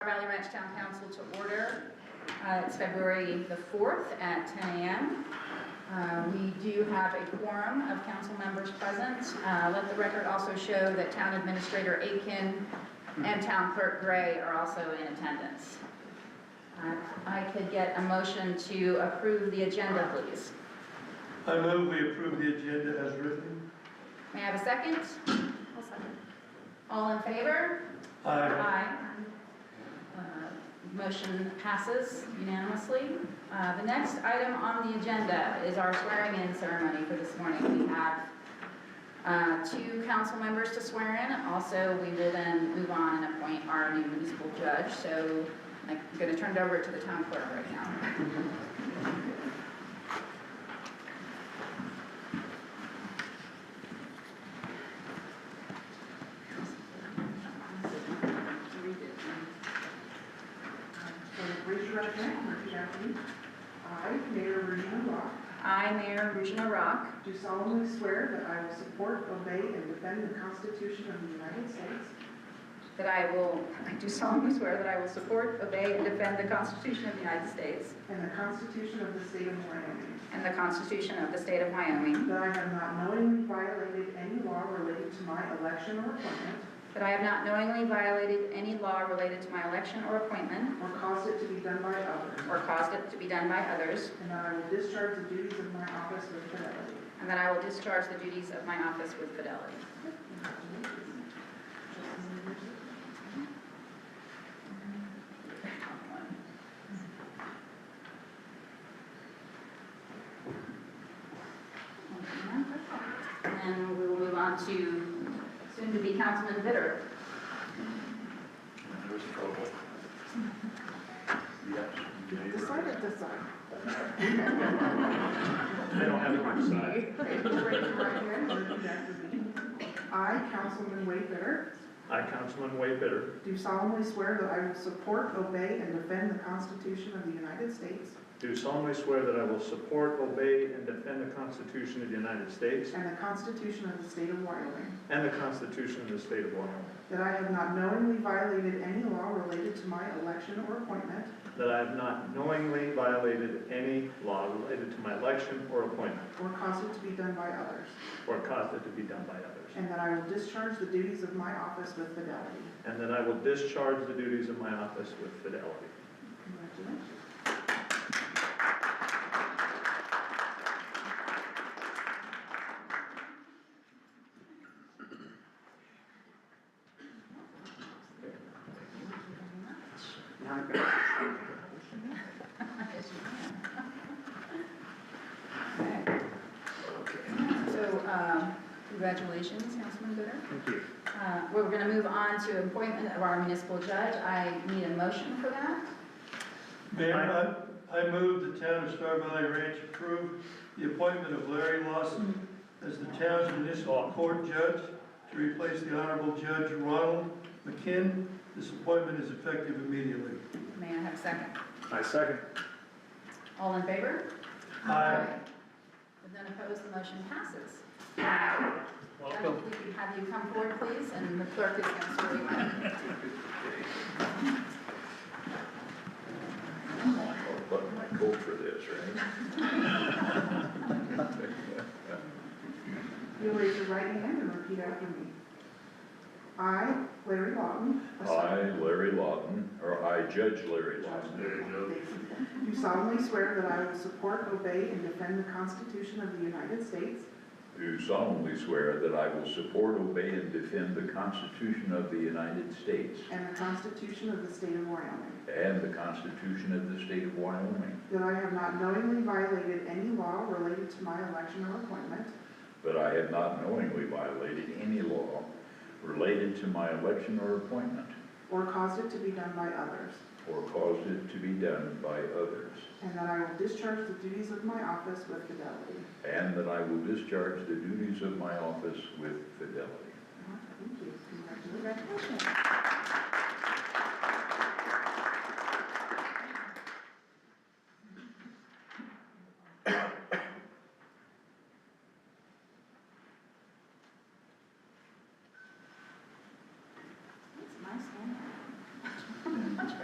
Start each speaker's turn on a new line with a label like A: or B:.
A: Valley Ranch Town Council to order. Uh, It's February the 4th at 10 a.m. Uh, We do have a quorum of council members present. Uh, Let the record also show that Town Administrator Aiken and Town Clerk Gray are also in attendance. Uh, if I could get a motion to approve the agenda, please.
B: I move we approve the agenda as written.
A: May I have a second? All in favor?
B: Aye.
A: Aye. Uh, Motion passes unanimously. Uh, The next item on the agenda is our swearing-in ceremony for this morning. We have uh, two council members to swear in. Also, we will then move on and appoint our new municipal judge. So I'm going to turn it over to the town clerk right now.
C: So raise your right hand and repeat after me. I, Mayor Regina Rock,
A: I, Mayor Regina Rock,
C: do solemnly swear that I will support, obey, and defend the Constitution of the United States
A: that I will, I do solemnly swear that I will support, obey, and defend the Constitution of the United States
C: and the Constitution of the State of Wyoming,
A: and the Constitution of the State of Wyoming,
C: that I have not knowingly violated any law related to my election or appointment,
A: That I have not knowingly violated any law related to my election or appointment
C: or caused it to be done by others,
A: or caused it to be done by others,
C: and that I will discharge the duties of my office with fidelity.
A: and that I will discharge the duties of my office with fidelity. And we will move on to soon-to-be Councilman Bitter.
D: There's trouble. Yes.
C: The side at the side.
D: They don't have to decide.
C: Okay, just raise your right hand and repeat after me. I, Councilman Wade Bitter,
E: I, Councilman Waybitter,
C: Do solemnly swear that I will support, obey, and defend the Constitution of the United States
E: do solemnly swear that I will support, obey, and defend the Constitution of the United States
C: and the Constitution of the State of Wyoming,
E: and the Constitution of the State of Wyoming,
C: that I have not knowingly violated any law related to my election or appointment,
E: that I have not knowingly violated any law related to my election or appointment,
C: or caused it to be done by others,
E: or caused it to be done by others,
C: and that I will discharge the duties of my office with fidelity.
E: and that I will discharge the duties of my office with fidelity.
C: Congratulations.
A: Yes, you can. Okay. So, um, congratulations, Councilman Bitter.
D: Thank you.
A: Uh, We're going to move on to appointment of our municipal judge. I need a motion for that.
B: Mayor, I, I move the town of Star Valley Ranch approve the appointment of Larry Lawson as the town's municipal court judge to replace the Honorable Judge Ronald McKinn. This appointment is effective immediately.
A: May I have a second?
E: I second.
A: All in favor?
B: Aye.
A: With none opposed, the motion passes. Judge,
E: Welcome.
A: we can Have you come forward, please, and the clerk is going to swear you in.
D: I'm gonna button my coat for this, right?
C: You'll raise your right hand and repeat after me. I, Larry Lawton. a
D: I,
C: solemn-
D: Larry Lawton, or I, Judge Larry Lawton,
C: Do solemnly swear that I will support, obey, and defend the Constitution of the United States
D: do solemnly swear that I will support, obey, and defend the Constitution of the United States
C: and the Constitution of the State of Wyoming,
D: and the Constitution of the State of Wyoming,
C: that I have not knowingly violated any law related to my election or appointment,
D: that I have not knowingly violated any law related to my election or appointment,
C: or caused it to be done by others,
D: or caused it to be done by others,
C: and that I will discharge the duties of my office with fidelity.
D: and that I will discharge the duties of my office with fidelity.
C: Thank you. Congratulations.
A: Congratulations.